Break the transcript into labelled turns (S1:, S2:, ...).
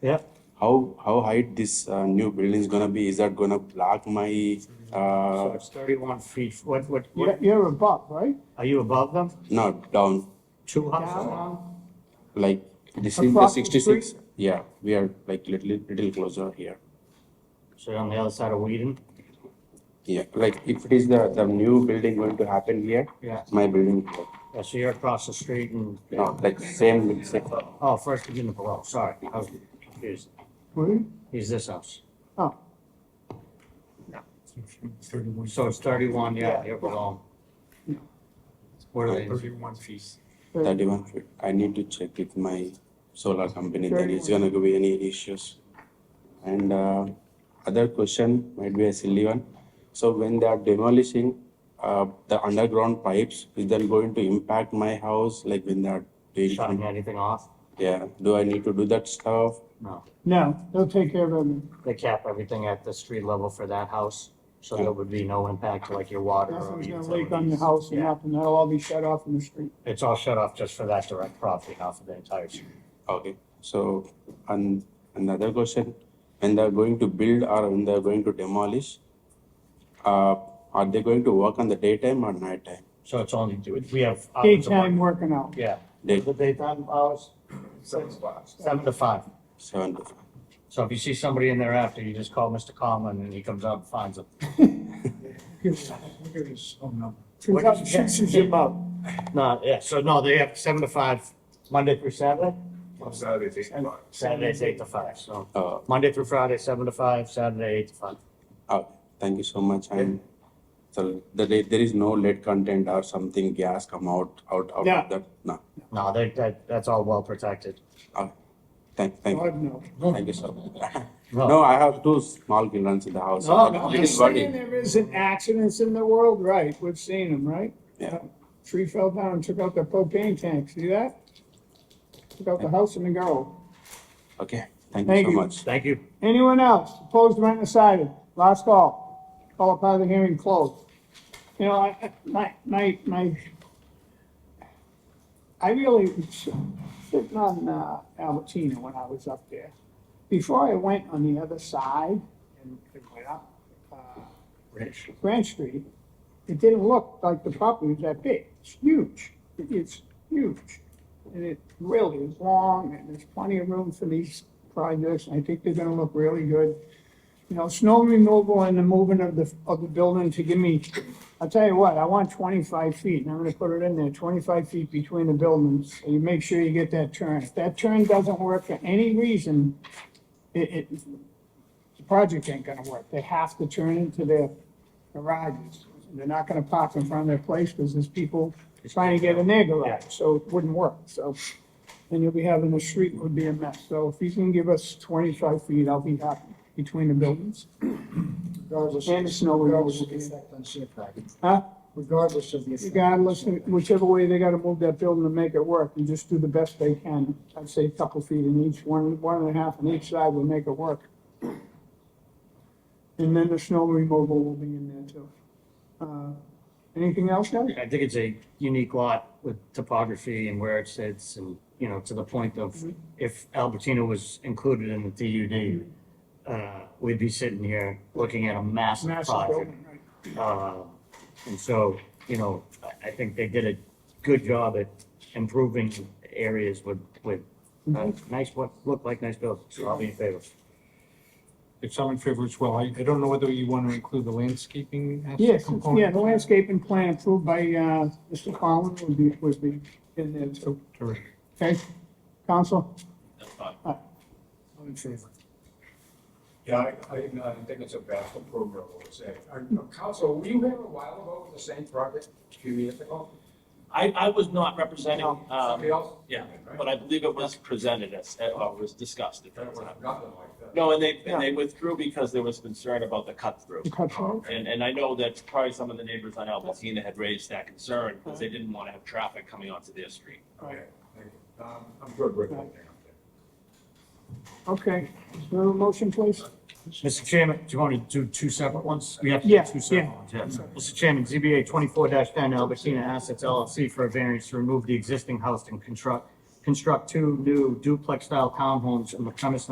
S1: Yeah.
S2: How, how height this uh, new building is gonna be? Is that gonna block my,
S1: So
S2: uh,
S1: it's thirty-one feet. What, what,
S3: You're,
S1: what,
S3: you're above, right?
S1: are you above them?
S2: no, down,
S1: Two houses?
S3: Down.
S2: like, this is the
S3: Across the
S2: sixty-six?
S3: street?
S2: Yeah, we are like little, little closer here.
S1: So you're on the other side of Whedon?
S2: Yeah, like if it is the, the new building going to happen here,
S1: Yeah.
S2: my building, is here.
S1: Yeah, So you're across the street and,
S2: no, like same, same,
S1: oh, first beginning below, sorry, I was confused.
S3: Where?
S1: He's this house.
S3: Oh,
S4: Thirty-one,
S1: So it's thirty-one, yeah,
S3: Yeah.
S1: you're below. Where are they?
S4: thirty-one feet.
S2: thirty-one feet. I need to check with my solar company, then it's
S3: 31.
S2: gonna be any issues. And, uh, other question might be a silly one. So when they are demolishing, uh, the underground pipes, is that going to impact my house, like when they are
S1: Shutting
S2: doing?
S1: anything off?
S2: Yeah, do I need to do that stuff?
S1: No.
S3: no, they'll take care of it.
S1: They cap everything at the street level for that house, so there would be no impact to like your water or
S3: Nothing's gonna
S1: utilities.
S3: leak on your house and
S1: Yeah.
S3: nothing. That'll all be shut off in the street.
S1: It's all shut off just for that direct property, not for the entire street.
S2: Okay, so, and another question, when they're going to build or when they're going to demolish, uh, are they going to work on the daytime or nighttime?
S1: So it's only, we have. hours of
S3: Daytime
S1: work.
S3: working out.
S1: Yeah.
S2: Day,
S1: The daytime hours? Seven to five. uh, Seven to five.
S2: seven to five.
S1: So if you see somebody in there after, you just call Mr. Conlon and he comes out and finds them.
S4: Look at his phone number.
S3: Two thousand six is above.
S1: No, yeah, so no, they have seven to five, Monday through Saturday?
S4: On Saturdays, eight to five.
S1: Saturday's eight to five, so
S2: Uh,
S1: Monday through Friday, seven to five, Saturday, eight to five.
S2: uh, thank you so much, and so the, there there is no lead content or something, gas come out, out, out
S3: Yeah.
S2: of that? No,
S1: No, they, that, that's all well protected.
S2: uh, thank, thank,
S3: God, no.
S2: thank you so much. No, I have two small children in the house.
S3: Oh.
S1: No, no,
S2: One
S1: I
S2: is
S3: Saying
S2: working.
S3: there isn't accidents in the world, right? We've seen them, right?
S2: Yeah.
S3: Tree fell down and took out the propane tank. See that? Took out the house and the girl.
S2: Okay, thank you
S3: Thank
S2: so
S3: you.
S2: much.
S1: Thank you.
S3: Anyone else? Opposed, right, and decided? Last call. Call upon the hearing closed. You know, I, I- my, my, my, I really, was sitting on uh, Albertina when I was up there. Before I went on the other side and and went up, uh,
S1: Rich.
S3: Grand Street, it didn't look like the property was that big. It's huge. It- It's huge. And it really is long and there's plenty of room for these projects. and I think they're gonna look really good. You know, snow removal and the moving of the, of the building to give me, I'll tell you what, I want twenty-five feet and I'm gonna put it in there, twenty-five feet between the buildings. So you make sure you get that turn. If that turn doesn't work for any reason, it, it, the project ain't gonna work. They have to turn into their garages. They're not gonna park in front of their place because there's people trying to get in their garage, so it wouldn't work, so. And you'll be having the street would be a mess, so if you can give us twenty-five feet, I'll be happy between the buildings.
S5: Regardless.
S3: And the snow
S5: Regardless of the
S3: removal.
S5: effect on sheetrock.
S3: Huh?
S5: Regardless of the. effect on
S3: Regardless,
S5: sheetrock.
S3: whichever way they gotta move that building to make it work, and just do the best they can. I'd say a couple feet in each, one, one and a half on each side will make it work. And then the snow removal will be in there too. Uh, Anything else, guys?
S1: I think it's a unique lot with topography and where it sits and, you know, to the point of
S3: Mm-hmm.
S1: if Albertina was included in the DUD, uh, we'd be sitting here looking at a massive
S3: Massive
S1: project.
S3: building, right.
S1: Uh, And so, you know, I, I think they did a good job at improving areas with, with
S3: Mm-hmm.
S1: uh, nice, what looked like nice buildings. So I'll be in favor.
S4: It's all in favor as well. I, I don't know whether you want to include the landscaping as a
S3: Yes,
S4: component.
S3: yeah, the landscaping plan approved by, uh, Mr. Collins would be, would be in there too.
S4: Correct.
S3: Okay, council?
S5: I'm in favor.
S6: Yeah, I, I, no, I think it's a vast program, I would say. Uh, Council, were you here a while ago with the same project, a few years ago?
S7: I, I was not representing, um,
S6: Somebody else?
S7: yeah,
S6: Right?
S7: but I believe it was presented as, uh, or was discussed at
S6: There
S7: that
S6: was
S7: time.
S6: nothing like that.
S7: No, and they, and they withdrew because there was concern about the cut through.
S3: You cut short?
S7: And, and I know that probably some of the neighbors on Albertina had raised that concern because they didn't want to have traffic coming onto their street.
S6: Okay, thank you. Um, I'm good with it.
S3: Okay, Is there a motion, please?
S1: Mr. Chairman, do you want to do two separate ones? We have to
S3: Yeah,
S1: do two separate
S3: yeah.
S1: ones, yes. Mr. Chairman, ZBA twenty-four ten Albertina Assets LLC for a variance to remove the existing house and construct, construct two new duplex-style townhomes on the premise